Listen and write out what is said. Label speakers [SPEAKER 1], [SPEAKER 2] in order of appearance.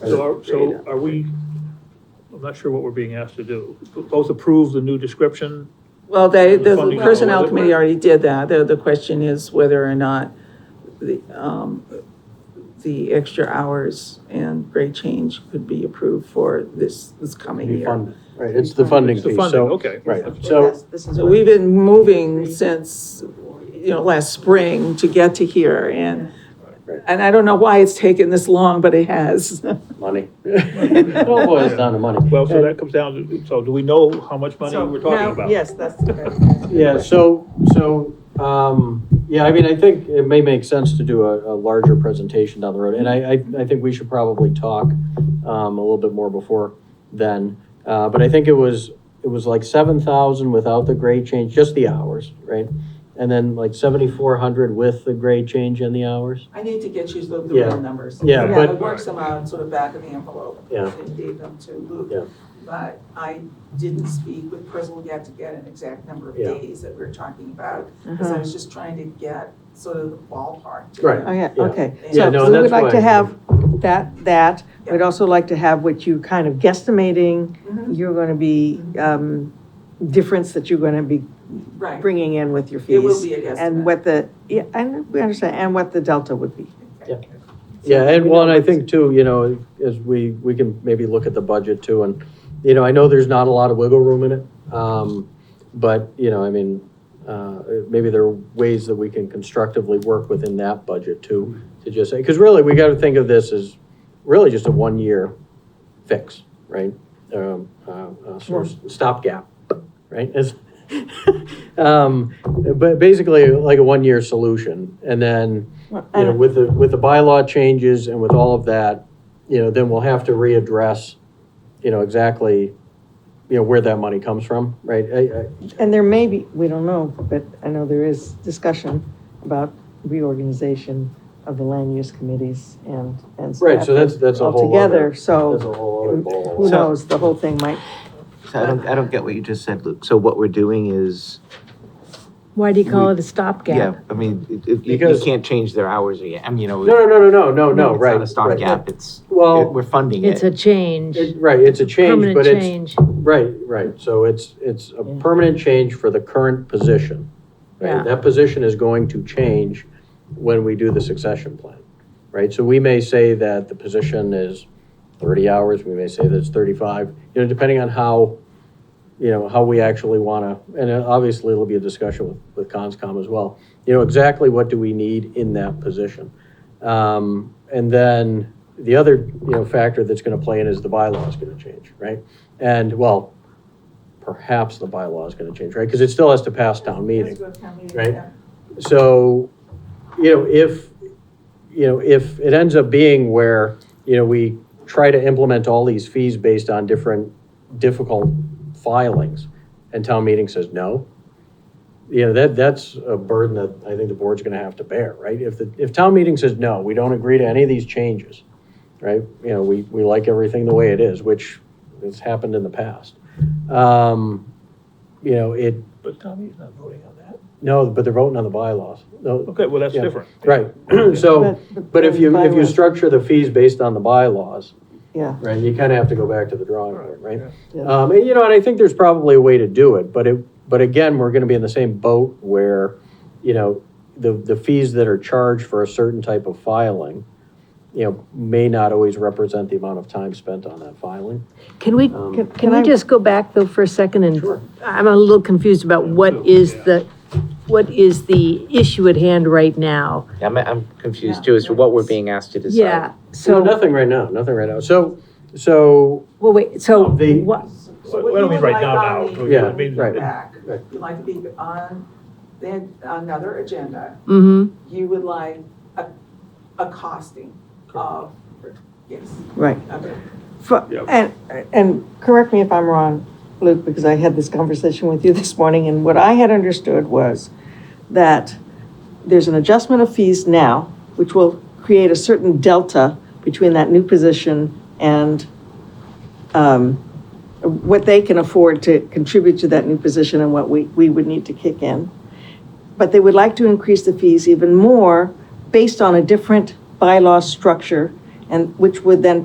[SPEAKER 1] So are, so are we, I'm not sure what we're being asked to do. Both approve the new description?
[SPEAKER 2] Well, they,
[SPEAKER 1] The
[SPEAKER 2] the
[SPEAKER 1] funding
[SPEAKER 2] personnel
[SPEAKER 1] level.
[SPEAKER 2] committee already did that. The, the question is whether or not the, um, the extra hours and grade change could be approved for this, this coming
[SPEAKER 3] Be
[SPEAKER 2] year.
[SPEAKER 3] funded, right, it's the funding
[SPEAKER 1] It's the
[SPEAKER 3] piece,
[SPEAKER 1] funding,
[SPEAKER 3] so.
[SPEAKER 1] okay.
[SPEAKER 3] Right,
[SPEAKER 1] That's-
[SPEAKER 3] so,
[SPEAKER 2] So we've been moving since, you know, last spring to get to here and, and I don't know why it's taken this long, but it has.
[SPEAKER 3] money. It all boils down to money.
[SPEAKER 1] Well, so that comes down to, so do we know how much money we're talking about?
[SPEAKER 2] Yes, that's
[SPEAKER 3] Yeah, so, so, um, yeah, I mean, I think it may make sense to do a, a larger presentation down the road, and I, I, I think we should probably talk, um, a little bit more before then. Uh, but I think it was, it was like seven thousand without the grade change, just the hours, right? And then like seventy-four hundred with the grade change and the hours.
[SPEAKER 2] I need to get you the, the
[SPEAKER 3] Yeah.
[SPEAKER 2] real numbers.
[SPEAKER 3] Yeah,
[SPEAKER 2] I
[SPEAKER 3] but-
[SPEAKER 2] worked some out sort of back of the envelope.
[SPEAKER 3] Yeah.
[SPEAKER 2] And gave them to
[SPEAKER 3] Yeah.
[SPEAKER 2] Luke. But I didn't speak with Prism yet to get an exact number of
[SPEAKER 3] Yeah.
[SPEAKER 2] days that we're talking about. Because I was just trying to get sort of the ballpark. to
[SPEAKER 3] Right.
[SPEAKER 4] Uh-huh. Oh, yeah,
[SPEAKER 3] Yeah.
[SPEAKER 4] okay.
[SPEAKER 2] Yeah,
[SPEAKER 4] So
[SPEAKER 3] no,
[SPEAKER 4] we would
[SPEAKER 3] that's
[SPEAKER 4] like
[SPEAKER 3] why-
[SPEAKER 4] to have that, that.
[SPEAKER 2] Yeah.
[SPEAKER 4] We'd also like to have what you kind of guesstimating,
[SPEAKER 2] Mhm.
[SPEAKER 4] you're going to be, um, difference that you're going to be
[SPEAKER 2] Right,
[SPEAKER 4] bringing in with your fees.
[SPEAKER 2] it will be a guesstimate.
[SPEAKER 4] And what the, yeah, and we understand, and what the delta would be.
[SPEAKER 2] Okay.
[SPEAKER 3] Yeah, and
[SPEAKER 4] we
[SPEAKER 3] one,
[SPEAKER 4] know
[SPEAKER 3] I
[SPEAKER 4] what's-
[SPEAKER 3] think too, you know, as we, we can maybe look at the budget too, and, you know, I know there's not a lot of wiggle room in it. Um, but, you know, I mean, uh, maybe there are ways that we can constructively work within that budget too, to just say, because really, we gotta think of this as really just a one-year fix, right? Um, uh, uh, sort of stopgap, right? As- Um, but basically, like a one-year solution, and then, you know,
[SPEAKER 4] And
[SPEAKER 3] with the, with the bylaw changes and with all of that, you know, then we'll have to readdress, you know, exactly, you know, where that money comes from, right? I- I-
[SPEAKER 4] and there may be, we don't know, but I know there is discussion about reorganization of the land use committees and, and.
[SPEAKER 3] Right, so that's, that's a whole
[SPEAKER 4] Altogether,
[SPEAKER 3] other.
[SPEAKER 5] Oh.
[SPEAKER 4] so
[SPEAKER 3] That's a whole other
[SPEAKER 4] who
[SPEAKER 3] ball.
[SPEAKER 4] knows, the whole thing might
[SPEAKER 5] So I don't, I don't get what you just said, Luke. So what we're doing is,
[SPEAKER 6] Why do you call
[SPEAKER 5] We-
[SPEAKER 6] it a
[SPEAKER 5] yeah,
[SPEAKER 6] stopgap?
[SPEAKER 5] I mean, it- it- you- you
[SPEAKER 3] Because-
[SPEAKER 5] can't change their hours again. I mean, you know.
[SPEAKER 3] No, no, no, no, no, no, no,
[SPEAKER 5] It's
[SPEAKER 3] right.
[SPEAKER 5] not a stopgap. It's, it-
[SPEAKER 3] Well,
[SPEAKER 5] we're funding
[SPEAKER 6] It's
[SPEAKER 5] it.
[SPEAKER 6] a change,
[SPEAKER 3] it- right, it's a change,
[SPEAKER 6] permanent
[SPEAKER 3] but it's,
[SPEAKER 6] change.
[SPEAKER 3] right, right. So it's, it's a
[SPEAKER 4] Yeah.
[SPEAKER 3] permanent change for the current position.
[SPEAKER 6] Yeah.
[SPEAKER 3] Right? That position is going to change when we do the succession plan, right? So we may say that the position is thirty hours, we may say that it's thirty-five, you know, depending on how, you know, how we actually wanna, and uh, obviously it'll be a discussion with, with CONSCOM as well. You know, exactly what do we need in that position? Um, and then the other, you know, factor that's gonna play in is the bylaw is gonna change, right? And, well, perhaps the bylaw is gonna change, right? Because it still has to pass town meeting.
[SPEAKER 2] Let's go to town meeting,
[SPEAKER 3] right?
[SPEAKER 2] yeah.
[SPEAKER 3] So, you know, if, you know, if it ends up being where, you know, we try to implement all these fees based on different difficult filings, and town meeting says no, you know, that, that's a burden that I think the board's gonna have to bear, right? If the, if town meeting says no, we don't agree to any of these changes, right? You know, we, we like everything the way it is, which has happened in the past. Um, You know, it,
[SPEAKER 1] But Tommy's not voting on that.
[SPEAKER 3] no, but they're voting on the bylaws. No,
[SPEAKER 1] Okay, well, that's
[SPEAKER 3] Yeah.
[SPEAKER 1] different.
[SPEAKER 3] Right, so, but if you, if you structure the fees based on the bylaws,
[SPEAKER 4] Yeah,
[SPEAKER 3] right, you kind of have to go back to the drawing board, right?
[SPEAKER 4] Yeah.
[SPEAKER 3] Um, and you know, and I think there's probably a way to do it, but it, but again, we're gonna be in the same boat where, you know, the, the fees that are charged for a certain type of filing, you know, may not always represent the amount of time spent on that filing.
[SPEAKER 6] Can we,
[SPEAKER 3] Um,
[SPEAKER 6] can-
[SPEAKER 4] Can
[SPEAKER 6] can we
[SPEAKER 4] I-
[SPEAKER 6] just go back though for a second and?
[SPEAKER 3] Sure.
[SPEAKER 6] I'm a little confused about what is the, what is the issue at hand right now?
[SPEAKER 5] I'm, I'm confused too as to what we're being asked to
[SPEAKER 3] uh,
[SPEAKER 5] decide.
[SPEAKER 6] Yeah,
[SPEAKER 3] So
[SPEAKER 6] so,
[SPEAKER 3] nothing right now, nothing right now. So, so,
[SPEAKER 6] well, wait, so
[SPEAKER 3] The-
[SPEAKER 6] what,
[SPEAKER 1] Well,
[SPEAKER 2] So what
[SPEAKER 1] I
[SPEAKER 2] you
[SPEAKER 1] don't mean
[SPEAKER 2] would
[SPEAKER 1] right
[SPEAKER 2] like
[SPEAKER 1] now,
[SPEAKER 2] on
[SPEAKER 1] now.
[SPEAKER 2] the-
[SPEAKER 3] Yeah,
[SPEAKER 1] I mean,
[SPEAKER 3] right.
[SPEAKER 2] Back,
[SPEAKER 3] Right.
[SPEAKER 2] you'd like to be on, then another agenda.
[SPEAKER 6] mm-hmm,
[SPEAKER 2] you would like a, a costing of, yes,
[SPEAKER 4] right.
[SPEAKER 2] okay.
[SPEAKER 4] For-
[SPEAKER 1] Yeah.
[SPEAKER 4] And, and correct me if I'm wrong, Luke, because I had this conversation with you this morning, and what I had understood was that there's an adjustment of fees now, which will create a certain delta between that new position and um, what they can afford to contribute to that new position and what we, we would need to kick in. But they would like to increase the fees even more based on a different bylaw structure, and which would then